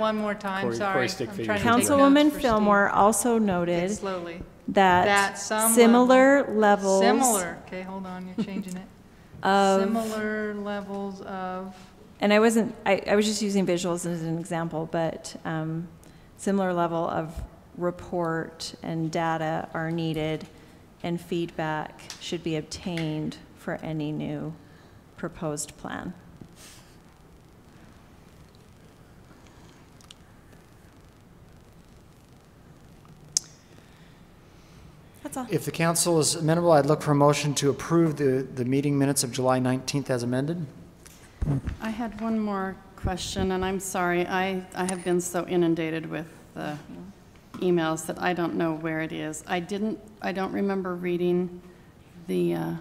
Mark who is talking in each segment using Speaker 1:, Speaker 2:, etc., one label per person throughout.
Speaker 1: One more time,
Speaker 2: Cory-
Speaker 1: sorry.
Speaker 2: Cory Stickfigure.
Speaker 1: I'm trying to take notes
Speaker 3: Councilwoman
Speaker 1: for Steve.
Speaker 3: Fillmore also
Speaker 1: Okay,
Speaker 3: noted
Speaker 1: Slowly.
Speaker 3: that
Speaker 1: That some
Speaker 3: similar levels
Speaker 1: Similar, okay, hold on, you're changing it.
Speaker 3: of,
Speaker 1: Similar levels of,
Speaker 3: and I wasn't, I, I was just using visuals as an example, but um, similar level of report and data are needed, and feedback should be obtained for any new proposed plan. That's all.
Speaker 2: If the council is amenable, I'd look for a motion to approve the, the meeting minutes of July 19th as amended.
Speaker 4: I had one more question, and I'm sorry, I, I have been so inundated with the emails that I don't know where it is. I didn't, I don't remember reading the uh,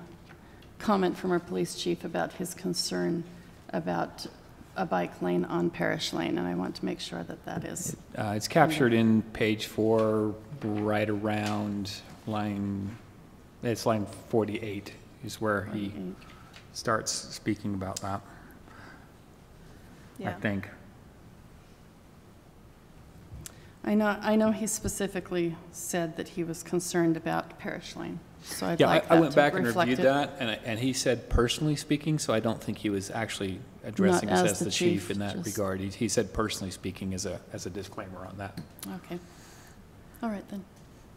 Speaker 4: comment from our police chief about his concern about a bike lane on Parish Lane, and I want to make sure that that is.
Speaker 5: Uh, It's captured in page four, right around line, it's line 48 is where he starts speaking about that, I
Speaker 4: Yeah.
Speaker 5: think.
Speaker 4: I know, I know he specifically said that he was concerned about Parish Lane, so I'd
Speaker 5: Yeah, I-
Speaker 4: like
Speaker 5: I
Speaker 4: that
Speaker 5: went back
Speaker 4: to
Speaker 5: and
Speaker 4: reflect
Speaker 5: reviewed
Speaker 4: it.
Speaker 5: that, and, I- and he said personally speaking, so I don't think he was actually addressing us as the chief in that
Speaker 4: just-
Speaker 5: regard. He- He said personally speaking as a, as a disclaimer on that.
Speaker 4: Okay. All right, then.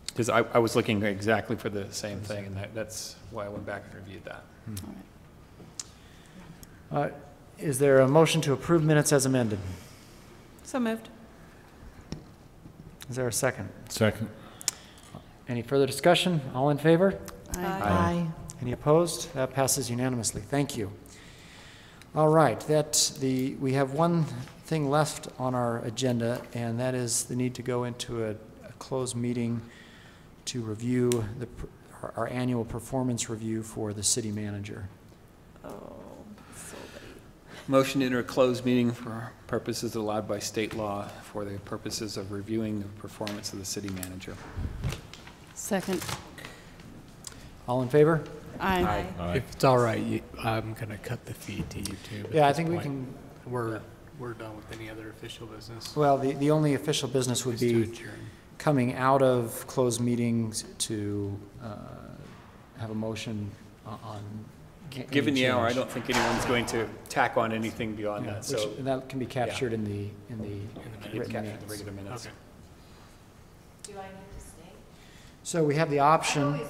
Speaker 5: Because I, I was looking exactly for the same thing, and that, that's why I went back and reviewed that.
Speaker 4: All right.
Speaker 2: Uh, Is there a motion to approve minutes as amended?
Speaker 3: So moved.
Speaker 2: Is there a second?
Speaker 6: Second.
Speaker 2: Any further discussion? All in favor?
Speaker 4: Aye.
Speaker 6: Aye.
Speaker 2: Any opposed? That passes unanimously. Thank you. All right, that, the, we have one thing left on our agenda, and that is the need to go into a, a closed meeting to review the, per- our- our annual performance review for the city manager.
Speaker 3: Oh,
Speaker 5: Motion to enter a closed meeting for purposes allowed by state law for the purposes of reviewing the performance of the city manager.
Speaker 4: Second.
Speaker 2: All in favor?
Speaker 4: Aye.
Speaker 6: Aye.
Speaker 7: If it's all right, you, I'm gonna cut the feed to you too. at
Speaker 2: Yeah, I
Speaker 7: this
Speaker 2: think we
Speaker 7: point.
Speaker 2: can,
Speaker 7: We're, we're done with any other official business.
Speaker 2: well, the, the only official business would
Speaker 7: Just to
Speaker 2: be
Speaker 7: adjourn.
Speaker 2: coming out of closed meetings to uh, have a motion o- on. any
Speaker 5: Given the hour, I
Speaker 2: change.
Speaker 5: don't think anyone's going to tack on anything beyond
Speaker 2: Yeah,
Speaker 5: that,
Speaker 2: which-
Speaker 5: so.
Speaker 2: and that can be captured in the, in the
Speaker 5: It's
Speaker 2: written
Speaker 5: captured in the
Speaker 2: minutes.
Speaker 5: regular minutes.
Speaker 2: So we have the option.